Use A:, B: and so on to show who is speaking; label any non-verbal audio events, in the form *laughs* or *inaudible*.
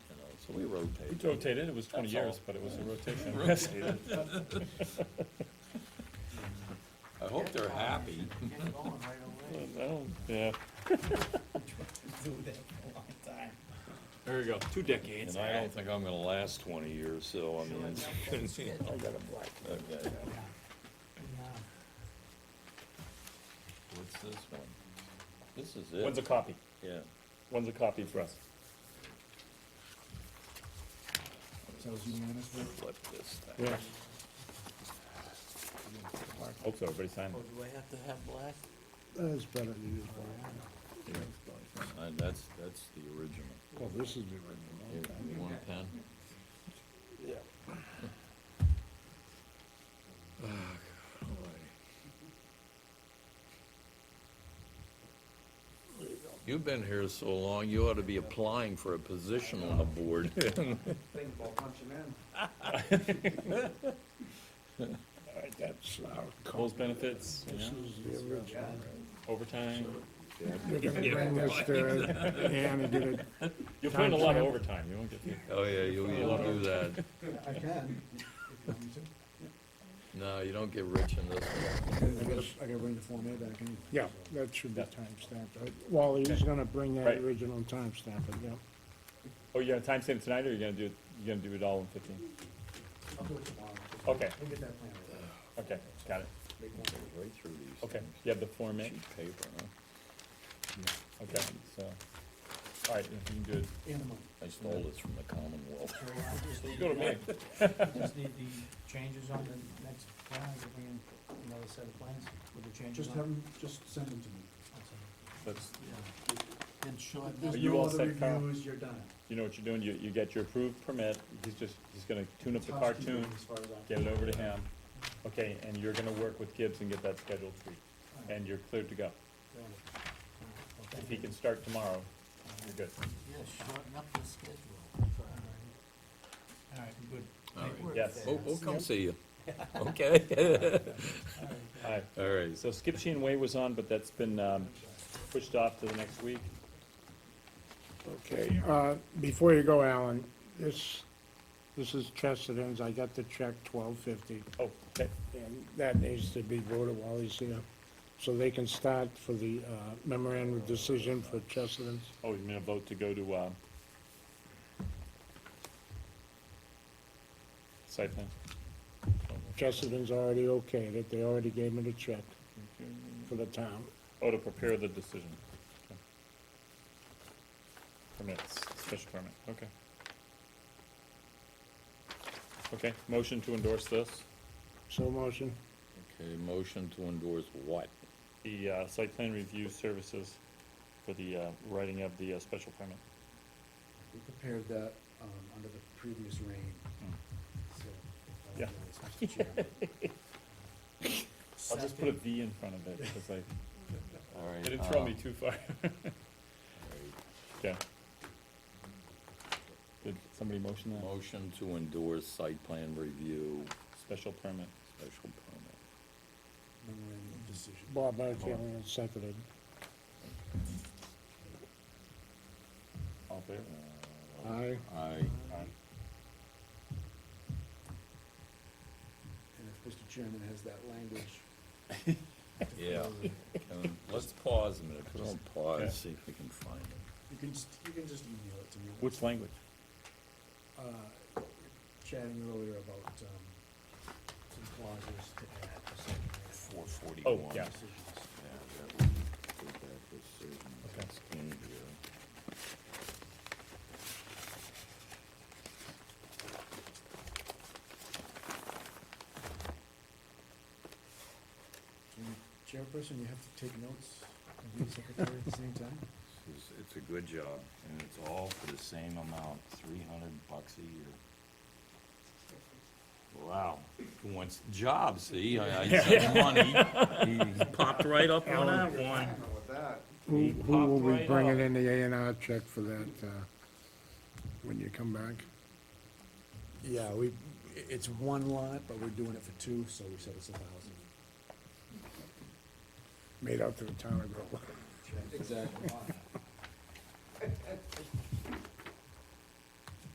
A: So we rotate.
B: It rotated, it was twenty
A: That's all.
B: years, but it was a rotation.
A: Rotated. I hope they're happy.
C: Get going right away.
B: *laughs* Well, Yeah,
C: Do that for a long time.
D: There you go, two decades.
B: and I don't think I'm gonna last twenty years, so I mean, it's-
C: I got a black.
A: okay. What's this one? This is
B: one's a
A: it,
B: copy,
A: yeah.
B: one's a copy for us.
A: Flip this thing.
B: Yeah. Hope so, everybody signed
C: Oh,
B: it.
C: do I have to have black?
E: That is better than you.
A: And that's, that's the original.
E: Well, Oh, this is the original.
A: Here, you want a pen?
E: Yeah.
A: You've been here so long, you ought to be applying for a position on the board.
C: Think about punching in.
E: *laughs* All right, that's our. co-
B: Those benefits, you
E: This
B: know,
E: is the original.
B: overtime,
E: You're gonna bring *laughs* this to Ann and get it.
B: you'll find a lot of overtime, you won't get paid.
A: Oh, yeah, you'll, you'll do that.
C: I can.
A: No, you don't get rich in this one.
F: I gotta, I gotta bring the Form A back in.
E: Yeah, that should be timestamped. Uh, Wally, he's gonna bring that
B: Right.
E: original and timestamp it, yeah.
B: Oh, you're gonna time stamp it tonight, or you're gonna do, it- you're gonna do it all in fifteen?
C: I'll do it tomorrow.
B: Okay,
C: We'll get that plan. ready.
B: okay, got it,
C: Make one.
A: Right through these.
B: okay, you have the form in,
A: Cheap paper, huh?
B: okay, so, all right, if you can do it,
C: And the money.
A: I stole this from the Commonwealth.
C: So I just need-
B: go to me.
C: Just need the changes on the next plan, I'll bring in another set of plans with the changes
F: Just
C: on.
F: have them, just send them to me.
C: That's all.
B: That's-
C: Yeah. And short.
F: There's
B: Are you
F: no
B: all
F: other
B: set, Carl?
F: Reviews, you're done.
B: You know what you're doing, you, you get your approved permit, he's just, he's gonna tune up the
F: Housekeeping
B: cartoon,
F: As far as I'm.
B: get it over to him, okay, and you're gonna work with Gibbs and get that scheduled for you, and you're cleared to go. If he can start tomorrow, you're good.
C: Yeah, shorten up the schedule. All right, good.
A: All right.
C: Work
B: Yes.
C: fast.
A: We'll, we'll Oh, come see
B: *laughs*
A: you. Okay?
C: All right.
B: All right,
A: All right.
B: so Skipsey and Way was on, but that's been, um, pushed off to the next week.
E: Okay, uh, before you go, Alan, this, this is Chesterton's. I got the check twelve fifty.
B: Oh, okay,
E: And that needs to be voted while he's here, so they can start for the uh, memorandum of decision for Chesterton's.
B: oh, you mean a vote to go to, um, site plan?
E: Chesterton's already okayed it, they already gave me the check for the town.
B: Oh, to prepare the decision. Okay. Permits, special permit, okay. Okay, motion to endorse this,
E: So motion,
A: Okay, motion to endorse what?
B: the, uh, site plan review services for the, uh, writing of the, uh, special permit.
F: We prepared that, um, under the previous reign, so. I
B: Yeah.
F: apologize, Mr. Chairman.
B: I'll just put a V in front of it, because I,
A: All right.
B: it didn't throw
A: uh,
B: me too far. *laughs* Yeah. Did somebody motion that?
A: Motion to endorse site plan review,
B: Special permit.
A: special permit.
F: Memorandum of decision.
E: Bob Markarian seconded.
B: All in favor?
A: Uh,
E: Aye.
A: Aye.
B: Aye.
F: And if Mr. Chairman has that language.
A: Yeah.
F: uh, You
A: Can- Let's pause a minute, put on pause, see if we can find it.
F: can just, you can just email it to me.
B: Which language?
F: uh, chatting earlier about, um, some clauses to add to second reading
A: Four forty-one.
B: Oh, yeah,
F: decisions.
B: Okay.
F: Can you- Chairperson, you have to take notes and be secretary at the same time?
A: It's, it's a good job, and it's all for the same amount, three hundred bucks a year. Wow, who wants the job, see, I, I said money, he popped right up on that one.
E: Who,
A: He
E: who will
A: popped
E: be
A: right
E: bringing
A: up.
E: in the A and R check for that, uh, when you come back?
F: Yeah, we, i- it's one lot, but we're doing it for two, so we said it's a thousand.
E: Made out to the town of Groveland.
F: Exactly.